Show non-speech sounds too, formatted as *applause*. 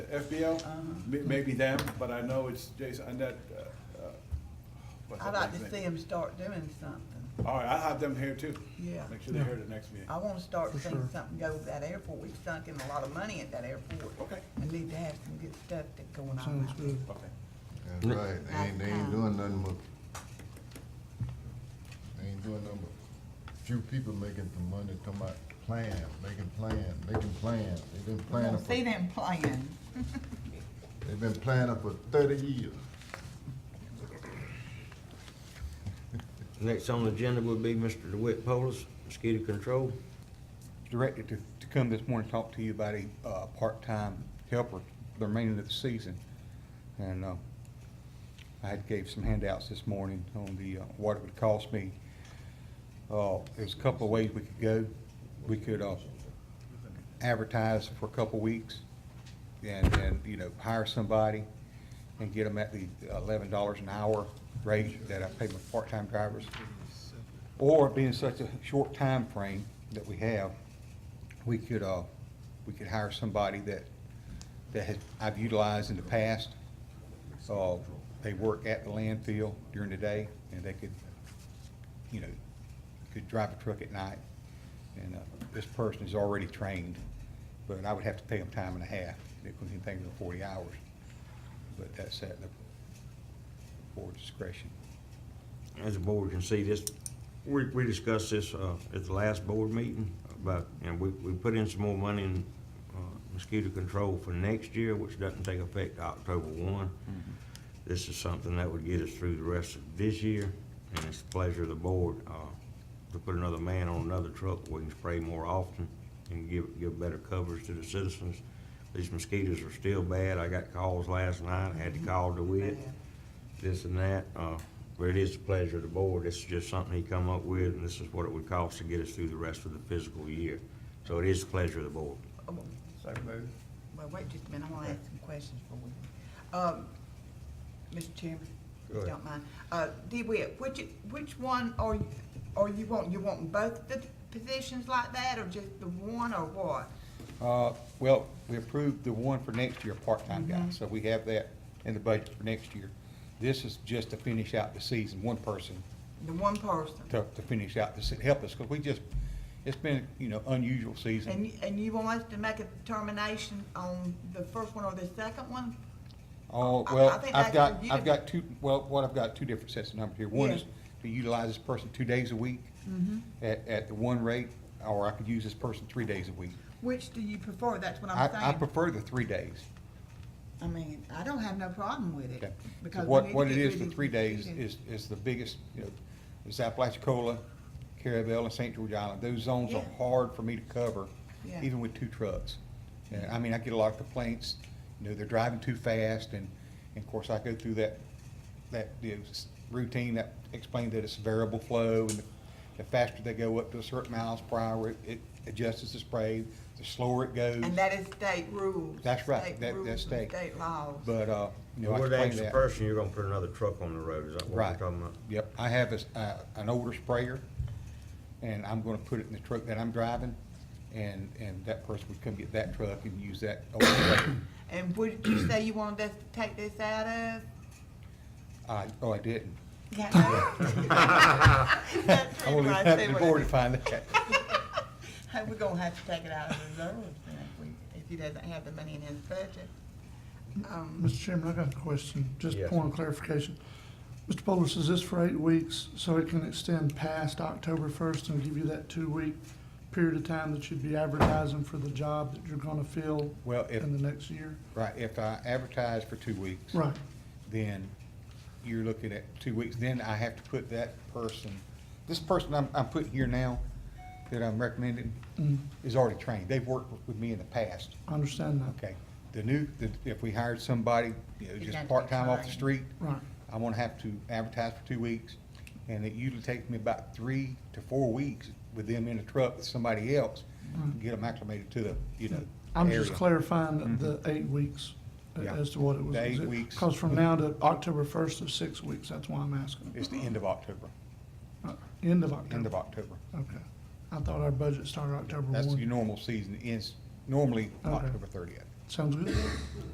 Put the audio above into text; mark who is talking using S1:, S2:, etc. S1: FBL? May- Maybe them, but I know it's Jason, and that, uh, uh, what's that
S2: I'd like
S1: man's
S2: to see
S1: name?
S2: them start doing something.
S1: All right, I'll have them here too.
S2: Yeah.
S1: Make sure they're here at the next meeting.
S2: I wanna start
S3: For
S2: seeing
S3: sure.
S2: something go with that airport. We sunk in a lot of money at that airport.
S1: Okay.
S2: I need to have some good stuff that going on.
S3: Sounds
S2: out
S3: good.
S1: Okay.
S4: That's right, they ain't, they ain't doing nothing but, they ain't doing nothing but, few people making the money, talking about plan, making plan, making plan. They've been
S2: there. We
S4: planning
S2: wanna
S4: for,
S2: see them playing.
S4: they've been planning for thirty years.
S5: Next on the agenda would be Mr. DeWitt Polis, mosquito control.
S6: directed to, to come this morning and talk to you about a, uh, part-time helper for the remainder of the season. And, uh, I had gave some handouts this morning on the, uh, what it would cost me. Uh, there's a couple of ways we could go. We could, uh, advertise for a couple of weeks and, and, you know, hire somebody and get them at the eleven dollars an hour rate that I pay my part-time drivers. Or being such a short time frame that we have, we could, uh, we could hire somebody that, that has, I've utilized in the past. Uh, they work at the landfill during the day and they could, you know, could drive a truck at night. And, uh, this person is already trained, but I would have to pay them time and a half. It could be anything over forty hours. But that's at the board's discretion.
S5: As the board can see, this, we, we discussed this, uh, at the last board meeting about, and we, we put in some more money in, uh, mosquito control for next year, which doesn't take effect October one. This is something that would get us through the rest of this year, and it's the pleasure of the board, uh, to put another man on another truck, we can spray more often and give, give better coverage to the citizens. These mosquitoes are still bad, I got calls last night, I had to call DeWitt
S2: Bad.
S5: this and that, uh, but it is the pleasure of the board, this is just something he come up with, and this is what it would cost to get us through the rest of the fiscal year. So it is the pleasure of the board.
S2: Oh, well,
S1: So moved.
S2: Well, wait just a minute, I wanna ask some questions for you. Um, Mr. Chairman, if
S5: Go
S2: you
S5: ahead.
S2: don't mind, uh, DeWitt, which, which one are, you- are you wanting, you wanting both the positions like that, or just the one, or what?
S6: Uh, well, we approved the one for next year, part-time guy,
S2: Mm-hmm.
S6: so we have that in the budget for next year. This is just to finish out the season, one person
S2: The one person?
S6: to, to finish out, to help us, because we just, it's been, you know, unusual
S2: And,
S6: season.
S2: you- and you want us to make a determination on the first one or the second one?
S6: Oh,
S2: I- I
S6: well,
S2: think
S6: I've
S2: that's
S6: got,
S2: for you
S6: I've
S2: to-
S6: got two, well, what I've got, two different sets of numbers here. One
S2: Yeah. Mm-hmm.
S6: is to utilize this person two days a week at, at the one rate, or I could use this person three days a week.
S2: Which do you prefer? That's what I'm
S6: I, I
S2: saying.
S6: prefer the three days.
S2: I mean, I don't have no problem with
S6: Okay.
S2: it.
S6: So
S2: because we need
S6: what,
S2: to
S6: what it
S2: get
S6: is
S2: rid
S6: for
S2: of
S6: three days
S2: mosquitoes.
S6: is, is the biggest, you know, is Apalachicola, Carabel, and St. George Island. Those zones are
S2: Yeah.
S6: hard for me to cover,
S2: Yeah.
S6: even with two trucks. And, I mean, I get a lot of complaints, you know, they're driving too fast, and, and of course, I go through that, that, you know, s- routine that explained that it's variable flow, and the faster they go up to a certain miles per hour, it- it adjusts the spray, the slower it goes.
S2: And that is state rules.
S6: That's right.
S2: state
S6: That-
S2: rules
S6: that's
S2: and
S6: state.
S2: State laws.
S6: But, uh, you know, I
S5: We're the
S6: explained
S5: extra
S6: that.
S5: person, you're gonna put another truck on the road, is that what we're
S6: Right.
S5: talking about?
S6: Yep, I have a s- uh, an older sprayer, and I'm gonna put it in the truck that I'm driving, and, and that person would come get that truck and use that old *coughs* sprayer.
S2: And would you say you wanted us to take this out of?
S6: I, oh, I didn't. *laughs*
S2: That's right.
S6: I only
S2: I
S6: have
S2: see
S6: the
S2: what I
S6: board
S2: did.
S6: to find that.
S2: *laughs* Hey, we're gonna have to take it out of reserves then if we, if he doesn't have the money in his budget. Um,
S3: Mr. Chairman, I got a question, just
S5: Yes.
S3: point of clarification. Mr. Polis, is this for eight weeks, so it can extend past October first and give you that two-week period of time that you'd be advertising for the job that you're gonna fill
S6: Well, if,
S3: in the next year?
S6: right, if I advertise for two weeks.
S3: Right,
S6: Then you're looking at two weeks, then I have to put that person, this person I'm, I'm putting here now, that I'm recommending,
S3: Mm,
S6: is already trained. They've worked with me in the past.
S3: I understand that,
S6: Okay, the new, the- if we hired somebody, you
S2: It's
S6: know,
S2: got to
S6: just
S2: be
S6: part-time off the
S2: trained.
S6: street,
S3: right.
S6: I'm gonna have to advertise for two weeks, and it usually takes me about three to four weeks with them in a truck with somebody else, to
S3: Right.
S6: get them acclimated to the, you know,
S3: Mm. I'm just
S6: area.
S3: clarifying the the eight weeks a-
S6: Yeah.
S3: as to what it was.
S6: The eight weeks.
S3: Because from now to October first is six weeks, that's why I'm asking.
S6: It's the end of October,
S3: Uh, End of October?
S6: end of October.
S3: Okay. I thought our budget started October
S6: That's your
S3: one.
S6: normal season, ends normally
S3: Okay.
S6: October thirtieth.
S3: Sounds good.